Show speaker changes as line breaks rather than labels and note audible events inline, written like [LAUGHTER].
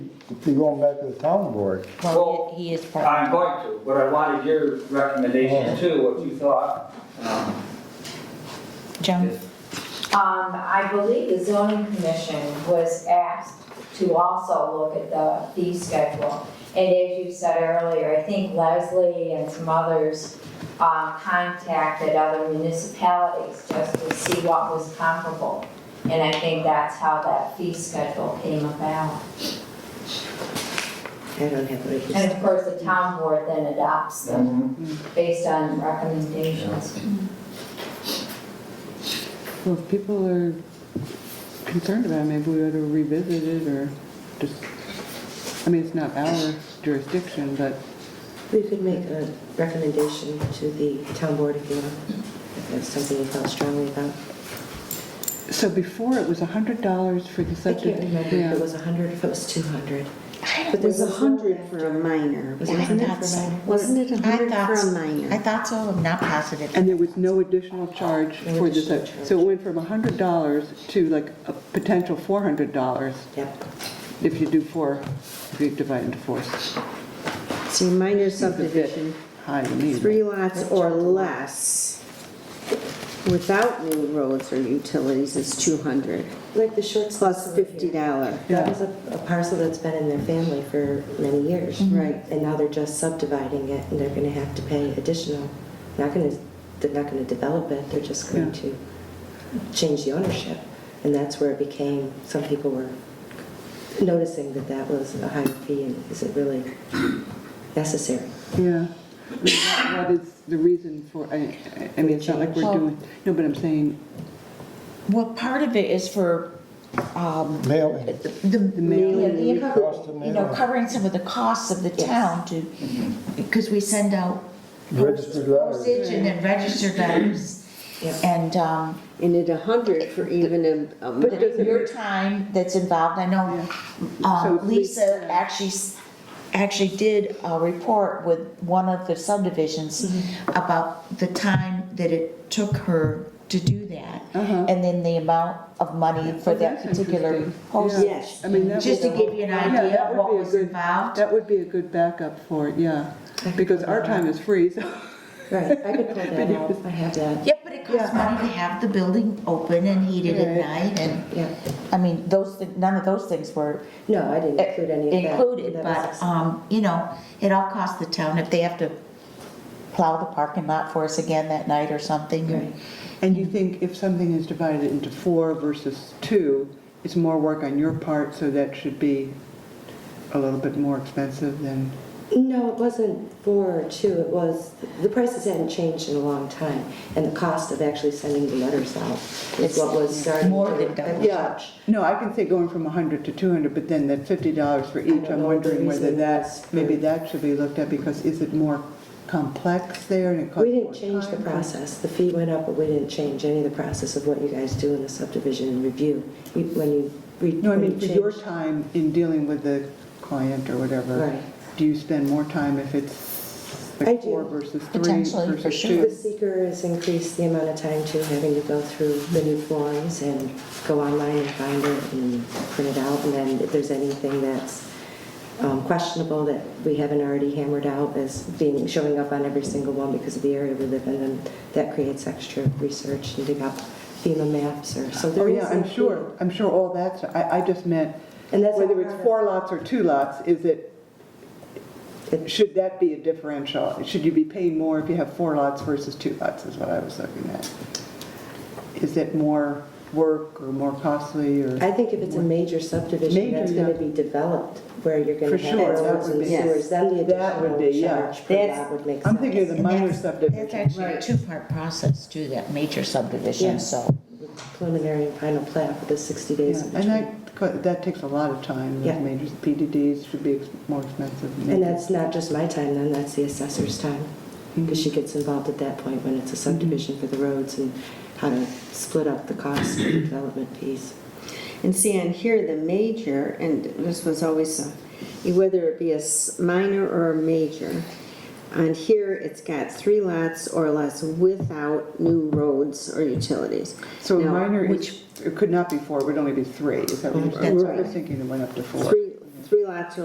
You're going back to the town board.
Well,
Well, he he is part.
I'm going to, but I wanted your recommendation too, what you thought. Um,
Joan,
Um, I believe the zoning commission was asked to also look at the fee schedule. And as you said earlier, I think Leslie and some others, um, contacted other municipalities just to see what was comparable. And I think that's how that fee schedule came about.
I don't have the
And of course, the town board then adopts them
mhm.
based on recommendations.
Well, if people are concerned about it, maybe we ought to revisit it or just, I mean, it's not our jurisdiction, but
We could make a recommendation to the town board if you want, if that's something you felt strongly about.
So before, it was $100 for the
I
septic.
can't remember if
yeah.
it was 100, if it was 200.
It was a hundred for a minor,
Was it a
wasn't it?
hundred for a minor?
Wasn't it a
I
hundred
thought
for a
so.
minor?
I thought so, I'm not positive.
And there was no additional charge
No
for the
additional
septic. So it went from $100 to like a potential $400
Yep.
if you do four, if you divide into four.
See, minor
Seems a bit
subdivision,
High to me.
three lots or less, without new roads or utilities is two hundred,
Like the short.
plus
story.
fifty dollar.
That was a a parcel that's been in their family for many years.
Right.
And now they're just subdividing it, and they're gonna have to pay additional, not gonna, they're not gonna develop it, they're just going
Yeah.
to change the ownership. And that's where it became, some people were noticing that that was a high fee, and is it really necessary?
Yeah. What- What is the reason for, I, I- I mean, it's not like we're
Well-
doing, no, but I'm saying,
well, part of it is for, um,
Mailing.
the,
mailing.
yeah, the
Cost of
income- you know,
mailing.
covering some of the costs of the
Yes.
town to, because we send out
Registered letters.
postage and then registered letters.
Yep.
And, um,
And at a hundred for even a, a
But
minor.
it- your time that's involved, I know um,
So if we-
Lisa actually, s- actually did a report with one of the subdivisions
Mm-hmm.
about the time that it took her to do that,
Uh-huh.
and then the amount of money for
Oh,
that
that's
particular
interesting.
postage.
Yes.
I mean, that
Just to
would-
give you an
Yeah,
idea
that
of
would
what
be a
was
good-
involved.
That would be a good backup for it, yeah, because our time is free, so. [LAUGHS]
Right, I could pull that out, I have that.
Yeah, but it costs money to have the building open and heated at
Right.
night, and,
Yeah,
I mean, those, thi- none of those things were
no, I didn't include any of that.
included,
That was-
but, um, you know, it all costs the town if they have to plow the parking lot for us again that night or something.
Right.
And you think if something is divided into four versus two, it's more work on your part, so that should be a little bit more expensive than,
No, it wasn't four or two, it was, the prices hadn't changed in a long time, and the cost of actually sending the letters out is
It's
what was starting.
more
to-
than double.
Yeah.
no, I can say going from 100 to 200, but then that $50 for each,
don't
I'm
know
wondering
the
whether
reason
that,
was for-
maybe that should be looked at, because is it more complex there and it costs
We
more
didn't change the
time?
process, the fee went up, but we didn't change any of the process of what you guys do in the subdivision review, You- when you. re-
No, I
when
mean, for
you
your
change-
time in dealing with the client or whatever,
Right.
do you spend more time if it's
I
like
do.
four versus three versus two?
Potentially, for sure.
The seeker has increased the amount of time too, having to go through the new forms and go online and find it and print it out. And then if there's anything that's um, questionable that we haven't already hammered out as being, showing up on every single one because of the area we live in, then that creates extra research and dig up FEMA maps or, so
Oh,
there is.
yeah,
a
I'm
fee.
sure, I'm sure all that's, I, I just meant,
And that's
whether
all
it's
part of-
four lots or two lots, is it,
It-
should that be a differential? Should you be paying more if you have four lots versus two lots, is what I was looking at? Is it more work or more costly, or?
I think if it's a major subdivision
Major,
that's gonna
yeah.
be developed, where you're
For
gonna have
sure, that
roads
would
and
be-
sewers, then the
That would
additional
be, yeah.
charge for
That's-
that would make sense.
I'm thinking of the
And
minor
that's- That's
subdivision.
actually a two-part process too, that major subdivision,
Yeah.
so.
preliminary and final plat for the 60
Yeah,
days in
And
between.
that, co- that takes a lot of time,
Yeah.
those major PDDs should be ex- more expensive. than
And
major.
that's not just my time then, that's the assessor's time,
Mm-hmm.
because she gets involved at that point when it's a subdivision for the roads and how to split up the cost of the
[CLEARS THROAT]
development piece.
And see, on here, the major, and this was always, a- whether it be a s- minor or a major, on here, it's got three lots or less without new roads or utilities.
So a
Now,
minor is, it could not be four, it would only be three, is that what you're
That's
saying? We're
right.
just thinking it went up to four.
Three